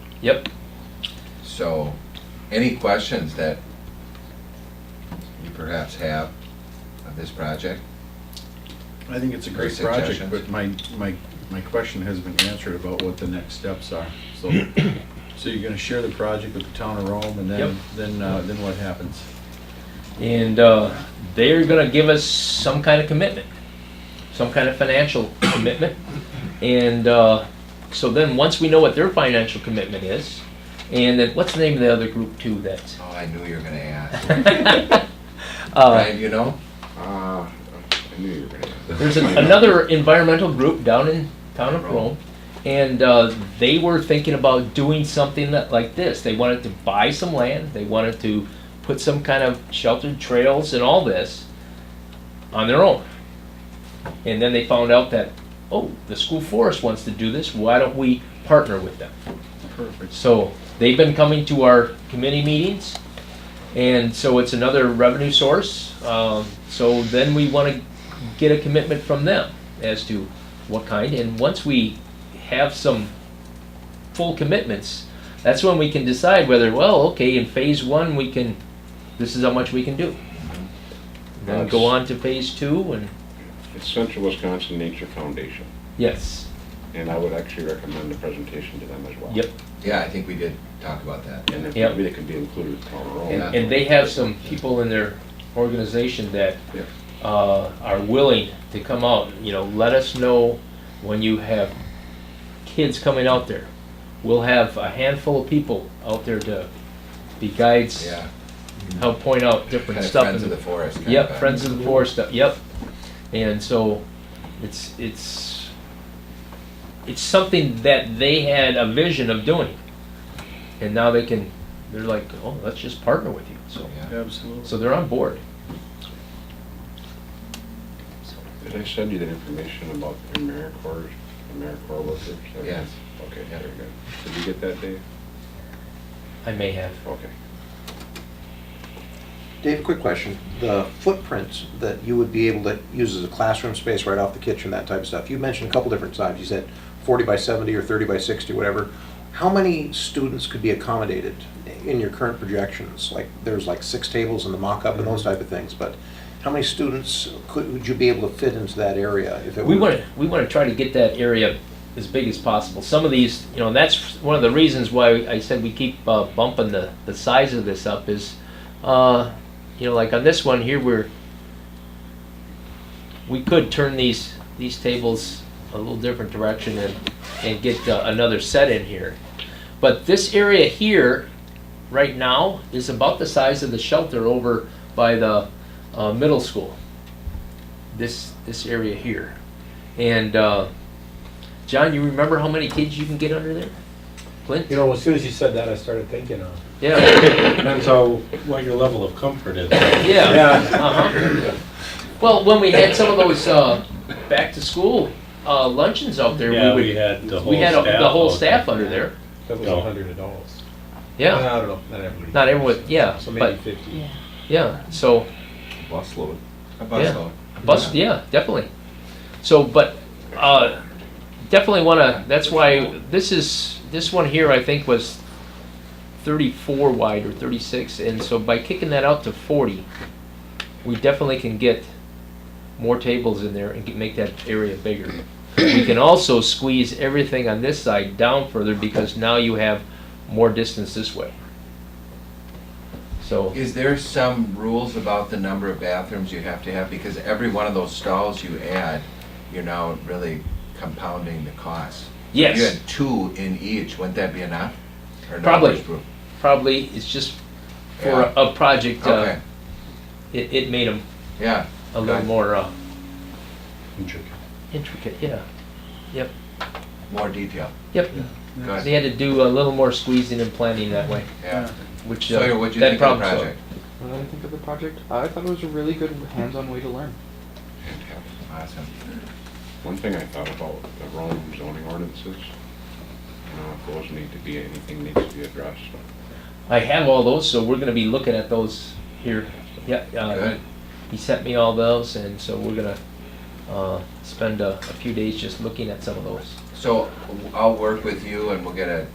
Yep. So, any questions that you perhaps have of this project? I think it's a great Great project, suggestions. but my, my, my question has been answered about what the next steps are. So, so you're gonna share the project with the town of Rome and Yep. then, then, uh, then what happens? And uh, they're going to give us some kind of commitment, some kind of financial commitment. And uh, so then, once we know what their financial commitment is, and then what's the name of the other group too? That's Oh, I knew you were gonna ask. uh, Brian, you know? Ah, I knew you were gonna. there's an, another environmental group down in town of Rome, and uh, they were thinking about doing something that, like this. They wanted to buy some land. They wanted to put some kind of sheltered trails and all this on their own. And then they found out that, oh, the school forest wants to do this. Why don't we partner with them? Perfect. So they've been coming to our committee meetings, and so it's another revenue source. Um, So then we want to get a commitment from them as to what kind, and once we have some full commitments, that's when we can decide whether, well, okay, in phase one, we can, this is how much we can do. Then go on to phase two, and, It's Central Wisconsin Nature Foundation, yes, and I would actually recommend the presentation to them as well. yep. Yeah, I think we did talk about that. And if Yep. maybe they can be included with Palmer Road. And, and they have some people in their organization that uh, are willing to come out, you know, let us know when you have kids coming out there. We'll have a handful of people out there to be guides, Yeah, help point out different kind of stuff. friends of and- the forest. kind of Yep, a- Friends of the Forest stuff, yep. And so, it's, it's, it's something that they had a vision of doing. And now they can, they're like, oh, let's just partner with you, so. Yeah. Absolutely. So they're on board. Did I send you that information about AmeriCorps, AmeriCorps workers? Yes. Okay, Yeah. very good. Did you get that, Dave? I may have. Okay. Dave, quick question. The footprints that you would be able to use as a classroom space right off the kitchen, that type of stuff, you mentioned a couple different times. You said 40 by 70 or 30 by 60, whatever. How many students could be accommodated in your current projections? Like, there's like six tables in the mock-up and those type of things, but how many students could, would you be able to fit into that area if it We were- want to, we want to try to get that area as big as possible. Some of these, you know, and that's one of the reasons why I said we keep uh, bumping the, the size of this up is, uh, you know, like on this one here, we're, we could turn these, these tables a little different direction and, and get uh, another set in here. But this area here, right now, is about the size of the shelter over by the uh, middle school. This, this area here. And, uh, John, you remember how many kids you can get under there? Clint? You know, as soon as you said that, I started thinking of, Yeah, depends how, what your level of comfort is. yeah. Yeah, Uh-huh. Well, when we had some of those, uh, back to school, uh, luncheons out there, yeah, we we would, had the whole we had staff. a- the whole out staff under there. That was a hundred adults. Yeah, I don't know, not everybody. not everyone, yeah, So maybe but, fifty. yeah, so, Busload. A bus Yeah. load. bus, yeah, definitely. So, but, uh, definitely wanna, that's why, this is, this one here, I think, was thirty-four wide or thirty-six, and so by kicking that out to forty, we definitely can get more tables in there and get- make that area bigger. We can also squeeze everything on this side down further, because now you have more distance this way. So, Is there some rules about the number of bathrooms you have to have? Because every one of those stalls you add, you're now really compounding the cost. If you yes, had two in each, wouldn't that be enough? Or no, Probably. there's room? probably, it's just for a- a project, uh, Okay, it, it made them yeah, a little Right. more uh, Intricate. intricate. Yeah. more detail, Yep. good, They had to do a little more squeezing and planning that way, yeah. which uh, So what'd you that think problem of the project? What did I think of the project? I thought it was a really good hands-on way to learn. Fantastic. Awesome. One thing I thought about the Rome zoning ordinances, you know, if those need to be, anything needs to be addressed. solved. I have all those, so we're going to be looking at those here. Yeah. Uh, Good. He sent me all those, and so we're going to uh, spend a, a few days just looking at some of those. So I'll work with you and we'll get a